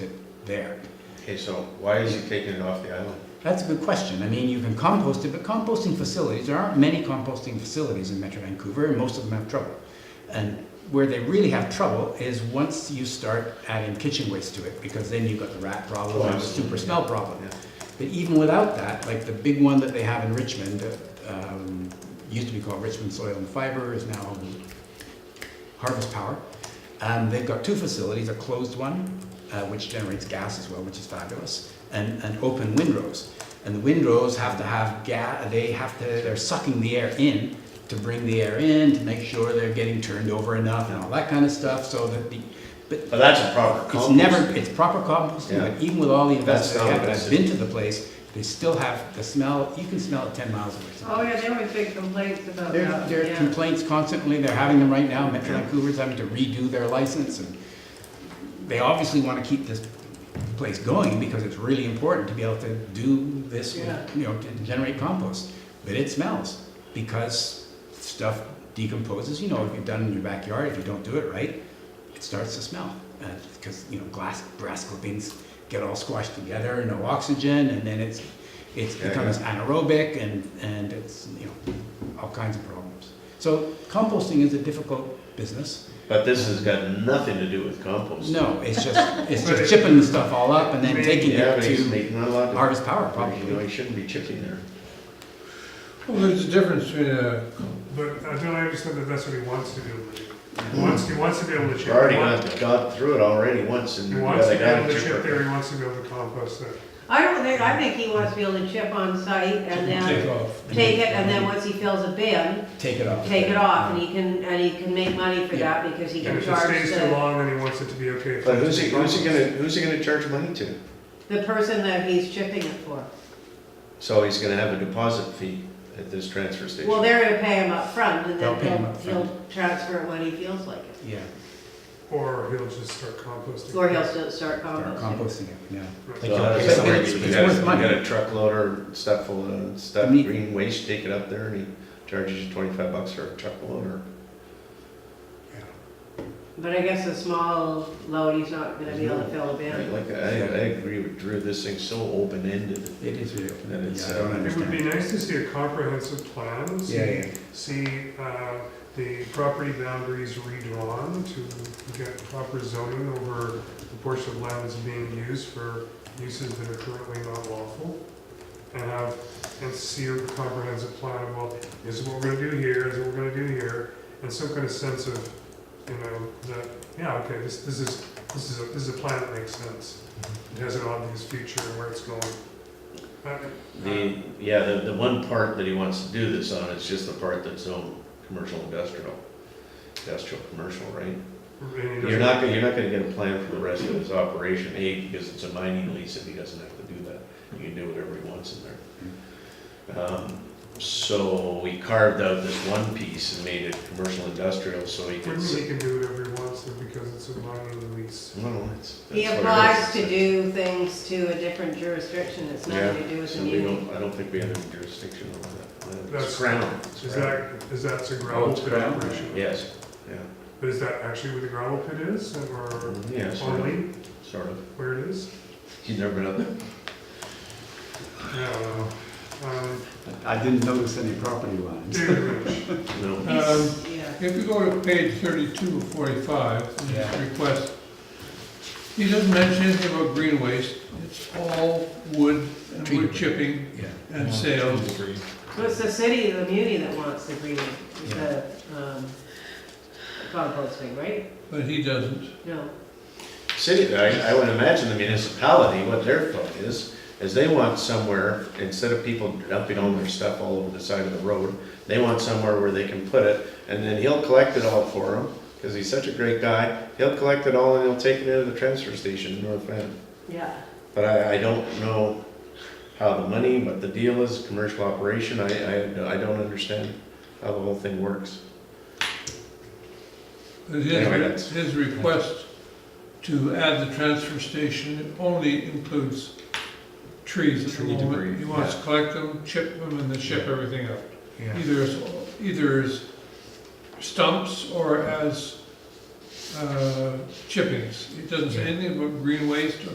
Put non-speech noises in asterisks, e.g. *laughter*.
there. Okay, so why is he taking it off the island? That's a good question. I mean, you can compost it, but composting facilities, there aren't many composting facilities in Metro Vancouver, and most of them have trouble. And where they really have trouble is once you start adding kitchen waste to it, because then you've got the rat problem Oh, and the absolutely, super yeah. smell problem. Yeah. But even without that, like the big one that they have in Richmond, uh, um, used to be called Richmond Soil and Fiber, is now Harvest Power. Um, they've got two facilities, a closed one, uh, which generates gas as well, which is fabulous, and, and open windrows. And the windrows have to have gas, they have to, they're sucking the air in to bring the air in, to make sure they're getting turned over enough and all that kind of stuff, so that the, but But that's a proper it's compost. never, it's proper composting, Yeah. but even with all the That's investment they have, not and I've been to the place, they still have the smell, you can smell it ten miles away. Oh, yeah, there were big complaints about There, that, there are yeah. complaints constantly, they're having them right now, Metro Yeah. Vancouver's having to redo their license, and they obviously wanna keep this place going, because it's really important to be able to do this, Yeah. you know, to generate compost, but it smells, because stuff decomposes, you know, if you've done it in your backyard, if you don't do it right, it starts to smell, because, you know, glass, brass clippings get all squashed together, no oxygen, and then it's, it Yeah, becomes anaerobic and, and it's, you know, all kinds of problems. So composting is a difficult business. But this has got nothing to do with compost. No, it's just, it's just chipping the stuff all up and then Right. taking Yeah, but it he's to making a lot of. Harvest Power You know, probably. he shouldn't be chipping there. Well, there's a difference between a, But I don't understand that that's what he wants to do. He wants, he wants to be able to chip. We've already He wants- gone, gone through it already once and. He you wants to gotta gotta be able to chip it. there, he wants to be able to compost there. I don't think, I think he wants to be able to chip on site and take then off. take it, and then once he fills a bin, Take it off. take it off, and he can, and he can make money for that because he And can if it charge stays too the, long, then he wants it to be okay. for But him who's to he, who's he compost. gonna, who's he gonna charge money to? the person that he's chipping it for. So he's gonna have a deposit fee at this transfer station. Well, they're gonna pay him up front, and They'll then pay him he'll, upfront. he'll transfer it when he feels like it. Yeah, Or he'll just start composting. Or he'll still start start composting. composting it, yeah. Right. So Like, how does it's- that work? it's- You it's got- worth money. You got a truckload or stuff full of stuff, I mean- green waste, take it up there and he charges you twenty-five bucks for a truckload or. But I guess a small load, he's not gonna be able to fill a I bin. Like, I, I agree with Drew, this thing's so open-ended. It is real. Then it's, Yeah, I don't uh, It would be understand. nice to see a comprehensive plan, Yeah, yeah. see, see, uh, the property boundaries redrawn to get proper zoning over the portion of land that's being used for uses that are currently not lawful. And have, and see a comprehensive plan of, well, this is what we're gonna do here, this is what we're gonna do here, and some kind of sense of, you know, that, yeah, okay, this, this is, this is, a this is a plan that makes sense. It has an obvious future and where it's going. Uh, The, yeah, the, the one part that he wants to do this on is just the part that's own commercial industrial, industrial commercial, right? Really You're not, gonna- you're not gonna get a plan for the rest of his operation, A, because it's a mining lease and he doesn't have to do that. You can do whatever he wants in there. Um, So we carved out this one piece and made it commercial industrial so he could. Wouldn't s- he can do whatever he wants to because it's a mining lease? No, it's. He that's what it applies is. to do things to a different jurisdiction, it's Yeah, nothing to do with So the we muni. don't, I don't think we have any jurisdiction over that. It's That's- Crown. it's Is Crown. that, is that a Oh, gravel it's pit gravel. operation? Yes, yeah. But is that actually where the gravel pit is or Yeah, sort of, only sort of. where it is? He's never been up there? I don't know. *laughs* Um, I didn't notice any property lines. David Lynch. No. um, He's- Yeah. if you go to page thirty-two of forty-five, in his Yeah. request, he doesn't mention anything about green waste, it's all wood and Treated. wood chipping Yeah. and sales. So it's the city, the muni that wants the green, the, um, composting, right? But he doesn't. No, City, I, I would imagine the municipality, what their thought is, is they want somewhere, instead of people dumping all their stuff all over the side of the road, they want somewhere where they can put it, and then he'll collect it all for them, because he's such a great guy. He'll collect it all and he'll take it into the transfer station in North Van. yeah. But I, I don't know how the money, what the deal is, commercial operation, I, I, I don't understand how the whole thing works. But Anyway, that's- his, his request to add the transfer station only includes trees at the Tree debris, moment. He wants yeah. to collect them, chip them, and then ship everything out. Yeah. Either as, either as stumps or as uh, chippings. It doesn't say anything about green waste